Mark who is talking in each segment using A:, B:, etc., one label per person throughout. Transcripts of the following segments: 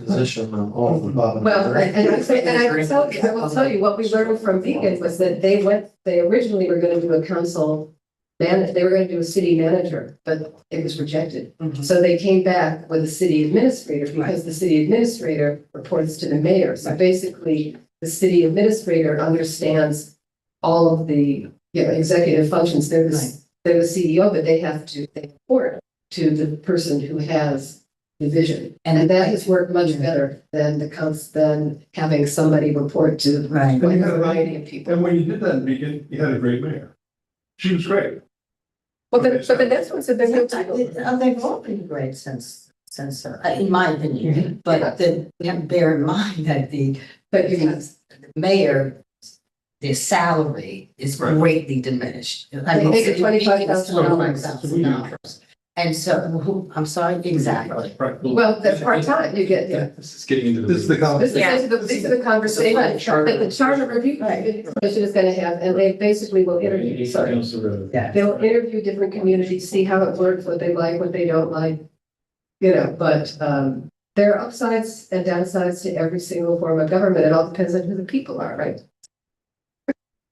A: position on all of the above.
B: Well, and and I say, and I will tell you, I will tell you, what we learned from Beacon was that they went, they originally were gonna do a council. Man, they were gonna do a city manager, but it was rejected. So they came back with a city administrator because the city administrator reports to the mayor. So basically, the city administrator understands all of the, you know, executive functions. They're
C: Right.
B: the, they're the CEO, but they have to, they report to the person who has the vision. And that has worked much better than the cons, than having somebody report to a
C: Right.
B: variety of people.
D: And when you did that in Beacon, you had a great mayor. She was great.
B: Well, but, but the next one said they're going to.
C: Uh, They've all been great since, since, uh, in my opinion, but then we have to bear in mind that the
B: But you have,
C: mayor, their salary is
D: Right.
C: greatly diminished. I
B: They
C: mean,
B: make
C: it's-
B: it
C: it's
B: $25,000.
C: $25,000. And so, who, I'm sorry, exactly.
D: Right.
B: well, that's part-time, you get, yeah.
E: This is getting into the.
D: This is the
E: weeds.
D: college.
B: This is, these are the- these are the conversations that the charter review commission is gonna have, and they basically will interview, sorry.
C: Yeah.
B: They'll interview different communities, see how it works, what they like, what they don't like. You know, but, um, there are upsides and downsides to every single form of government. It all depends on who the people are, right?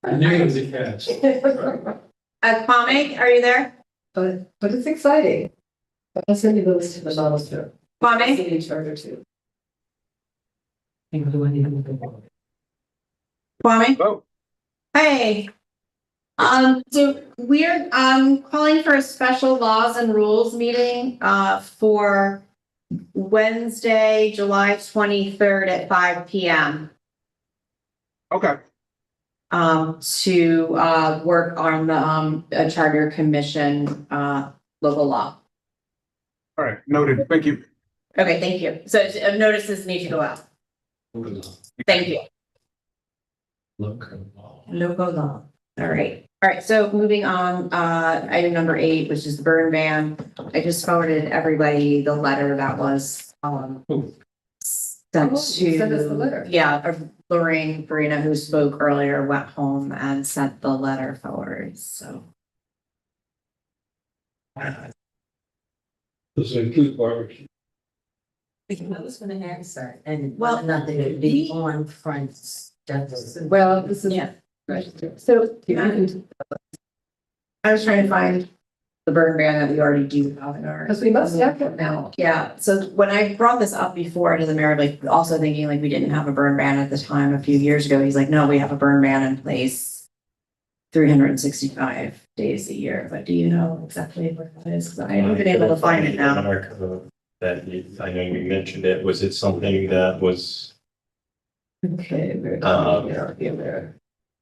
E: I knew it was a catch.
F: Uh, Kwame, are you there?
B: But, but it's exciting. I'll send you the list of the models too.
F: Kwame?
B: City charter too.
F: Kwame?
D: Hello.
F: Hey. Um, so we're, um, calling for a special laws and rules meeting, uh, for Wednesday, July twenty-third at five P M.
D: Okay.
F: Um, to, uh, work on the, um, uh, Charter Commission, uh, local law.
D: All right, noted. Thank you.
F: Okay, thank you. So uh, notices need to go out. Thank you.
E: Local law.
F: Local law. All right, all right, so moving on, uh, item number eight, which is the burn ban. I just forwarded everybody the letter that was, um.
E: Ooh.
F: Sent
B: Oh, you
F: to.
B: sent us the letter.
F: Yeah, uh, Lorraine Farina, who spoke earlier, went home and sent the letter forward, so.
E: Does it include barbecue?
C: I was gonna answer, and
F: Well,
C: nothing would
F: he-
C: be on Frank's desk.
B: Well, this is.
F: Yeah.
B: So.
F: I was trying to find the burn ban that we already do have in our.
B: Because we must have it now.
F: Yeah, so when I brought this up before to the mayor, like also thinking like we didn't have a burn ban at the time a few years ago, he's like, no, we have a burn ban in place. Three hundred and sixty-five days a year, but do you know exactly where that is? 'Cause I haven't been able to find it
G: In
F: now.
G: our code uh, That you, I know you mentioned it, was it something that was
B: Okay. we're-
G: Um,
B: yeah, yeah, we're-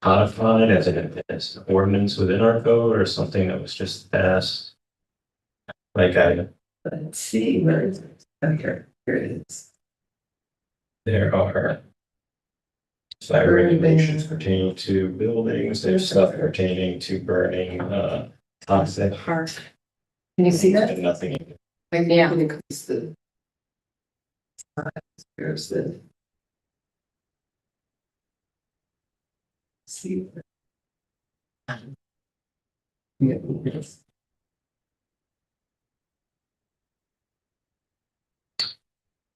G: codified as an as an ordinance within our code or something that was just passed? Like I,
B: Let's see, where is it? Oh, here, here it is.
G: there are fire regulations pertaining to buildings, there's stuff pertaining to burning, uh, toxic.
F: Park.
B: Can you see that?
G: And nothing,
F: Yeah.
B: Can you increase the- Here's the. See. Yeah, yes.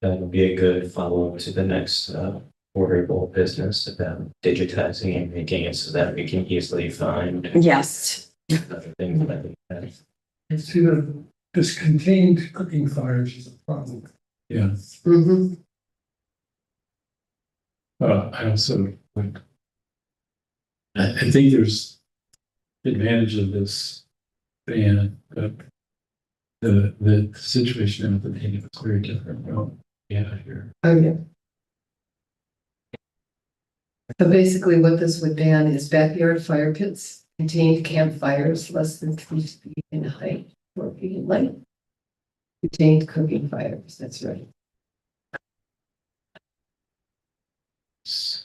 G: that would be a good follow-up to the next, uh, orderable business about digitizing and making it so that we can easily find
F: Yes,
G: other things that we have.
H: See that this contained cooking fires is a problem.
E: Yeah,
B: Mhm.
E: uh, I also like. I, I think there's advantage of this ban, but the, the situation at the beginning was very different. Well, Yeah, here.
B: Oh, yeah. So basically what this would ban is backyard fire pits, contained campfires less than three feet in height, four feet in length. Contained cooking fires, that's right.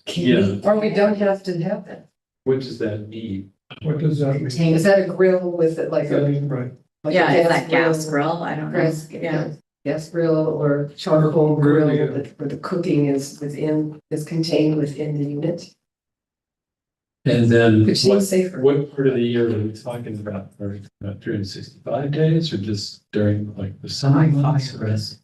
E: Yeah,
B: Or we don't have to have that.
E: what does that mean?
H: What does that mean?
B: Is that a grill with it like a?
H: Right.
B: like a
F: yeah, is that gas grill? I don't know.
B: Gas,
F: Yeah,
B: yeah, gas grill or charcoal grill
H: Grill, yeah.
B: that- where the cooking is within, is contained within the unit,
E: And then
B: which
E: what,
B: seems safer.
E: what part of the year are we talking about? Are we talking about three hundred and sixty-five days or just during like the summer months? or-
C: Fires.